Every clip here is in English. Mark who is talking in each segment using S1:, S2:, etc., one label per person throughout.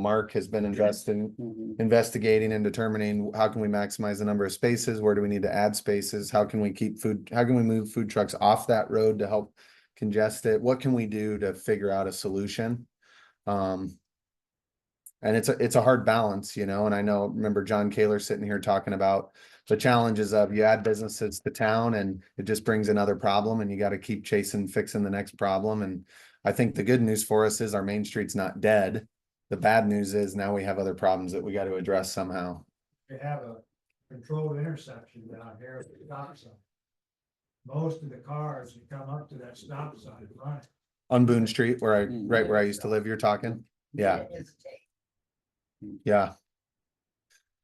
S1: Mark has been investing,
S2: Mhm.
S1: investigating and determining how can we maximize the number of spaces? Where do we need to add spaces? How can we keep food, how can we move food trucks off that road to help congest it? What can we do to figure out a solution? Um, and it's a, it's a hard balance, you know, and I know, remember John Kaler sitting here talking about the challenges of you add businesses to town and it just brings another problem and you gotta keep chasing, fixing the next problem. And I think the good news for us is our main street's not dead. The bad news is now we have other problems that we gotta address somehow.
S3: They have a controlled intersection down here at the stop sign. Most of the cars that come up to that stop sign, right?
S1: On Boone Street where I,
S2: Mm.
S1: right where I used to live, you're talking? Yeah, yeah.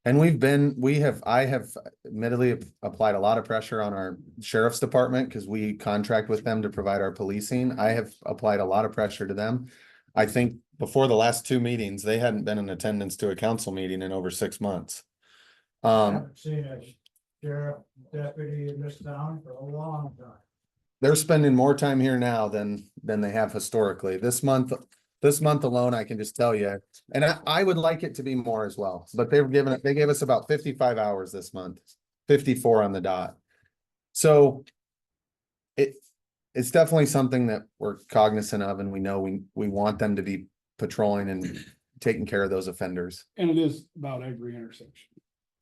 S1: And we've been, we have, I have admittedly ap- applied a lot of pressure on our sheriff's department because we contract with them to provide our policing. I have applied a lot of pressure to them. I think before the last two meetings, they hadn't been in attendance to a council meeting in over six months.
S3: I
S1: Um,
S3: haven't seen a sheriff deputy in this town for a long time.
S1: they're spending more time here now than than they have historically. This month, this month alone, I can just tell you. And I, I would like it to be more as well, but they were giving it, they gave us about fifty-five hours this month, fifty-four on the dot. So it, it's definitely something that we're cognizant of and we know we, we want them to be patrolling and taking care of those offenders.
S2: And it is about every intersection.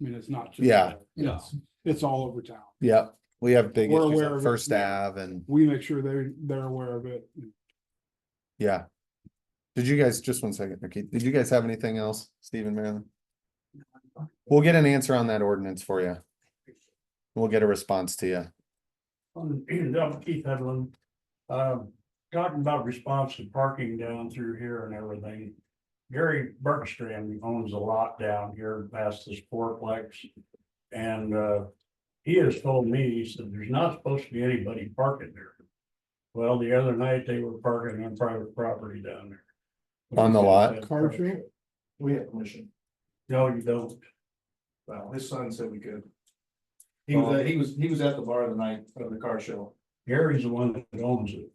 S2: I mean, it's not. just
S1: Yeah.
S2: Yes, it's all over town.
S1: Yep, we have big
S2: We're
S1: issues
S2: aware
S1: on
S2: of it,
S1: First
S2: yeah.
S1: Ave and,
S2: We make sure they, they're aware of it.
S1: yeah. Did you guys, just one second, Nikki, did you guys have anything else, Stephen, Marilyn? We'll get an answer on that ordinance for you. We'll get a response to you.
S4: Um, I'm Keith Hedlund. Um, talking about responsive parking down through here and everything. Gary Bergstrom owns a lot down here past this fourplex. And, uh, he has told me, he said, there's not supposed to be anybody parking there. Well, the other night they were parking on private property down there.
S1: On the lot?
S2: Car show?
S5: We have permission.
S4: No, you don't.
S5: Well, his son said we could.
S4: Oh.
S5: He was, at- he was, he was at the bar the night of the car show.
S4: Gary's the one that owns it.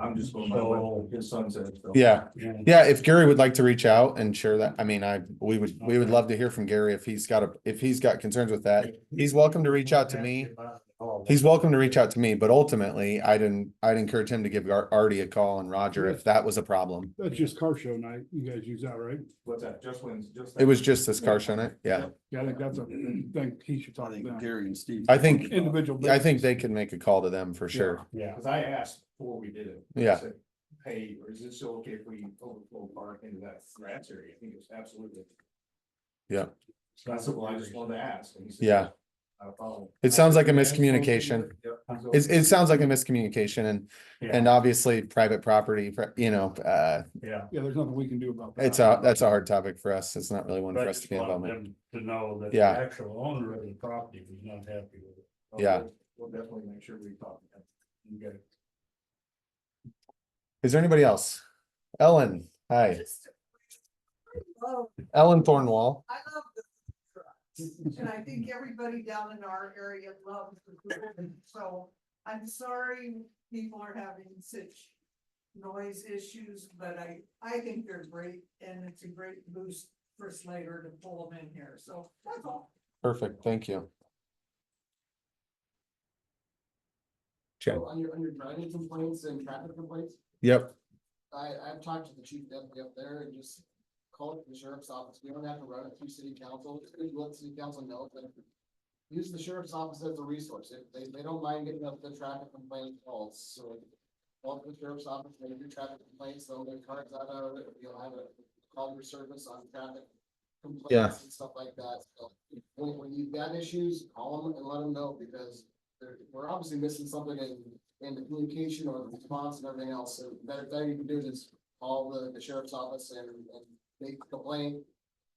S5: I'm just going by what his son said. so.
S1: Yeah,
S4: And
S1: yeah, if Gary would like to reach out and share that, I mean, I, we would, we would love to hear from Gary if he's got a, if he's got concerns with that. He's welcome to reach out to me. He's welcome to reach out to me, but ultimately, I'd, en- I'd encourage him to give Ar- Artie a call and Roger if that was a problem.
S2: That's just car show night. You guys use that, right?
S5: What's that? Just wins, just.
S1: It was just this car show night, yeah.
S2: Yeah, I think that's a thing he should talk about.
S6: Gary and Steve.
S1: I think,
S2: Individual.
S1: I think they can make a call to them for sure.
S4: Yeah.
S5: Cause I asked before we did it. I
S1: Yeah.
S5: said, Hey, or is it still okay if we overflow park into that grass area? I think it was absolutely.
S1: Yeah.
S5: That's what I just wanted to ask. and he said,
S1: Yeah.
S5: "Not a problem."
S1: It sounds like a
S5: I asked him,
S1: miscommunication.
S5: Yep.
S1: It, it sounds like a miscommunication and,
S4: Yeah.
S1: and obviously private property, pri- you know, uh,
S4: Yeah.
S2: Yeah, there's nothing we can do about that.
S1: It's uh, a, that's a hard topic for us. It's not really one
S4: But
S1: for
S4: I
S1: us to
S4: just
S1: be involved
S4: wanted
S1: in.
S4: them to know that the
S1: Yeah.
S4: actual owner of the property was not happy with it.
S1: Yeah.
S5: We'll definitely make sure we talk. to him. You got it.
S1: Is there anybody else? Ellen, hi, Ellen Thornwall.
S7: I love the food trucks, and I think everybody down in our area loves the food, truck. so I'm sorry people are having such noise issues, but I, I think they're great, and it's a great boost for Slater to pull them in here, so that's all.
S1: Perfect, thank you. Okay.
S8: So on your, on your driving complaints and traffic complaints,
S1: Yep,
S8: I, I've talked to the chief deputy up there and just called the sheriff's office. We don't have to run it through city council. Just let city council know that use the sheriff's office as a resource. If they, they don't mind getting up the traffic complaint calls, so call the sheriff's office, make your traffic complaints, they'll get cars out of it. You'll have a call your service on traffic
S1: Yeah.
S8: complaints and stuff like that. So when, when you've got issues, call them and let them know because they're, we're obviously missing something in and the communication or the response and everything else, so better thing you can do is call the, the sheriff's office and, and make the complaint.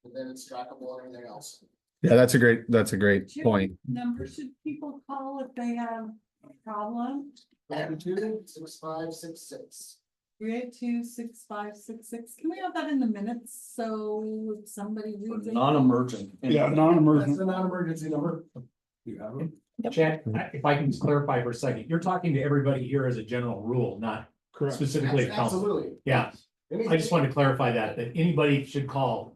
S8: And then it's trackable and everything else.
S1: yeah, that's a great, that's a great point.
S7: Number should people call if they have a problem?
S8: Latitude six five six six.
S7: Three eight two six five six six, can we have that in the minutes, so if somebody reads it?
S6: Non-emergent.
S2: Yeah,
S8: That's
S2: non-emergent.
S8: the non-emergency number.
S6: Mm-hmm. You have it?
S9: Chad, I- if I can just clarify for a second, you're talking to everybody here as a general rule, not
S2: Correct.
S9: specifically to council.
S8: Absolutely.
S9: Yeah,
S4: I just wanted to clarify that, that anybody should call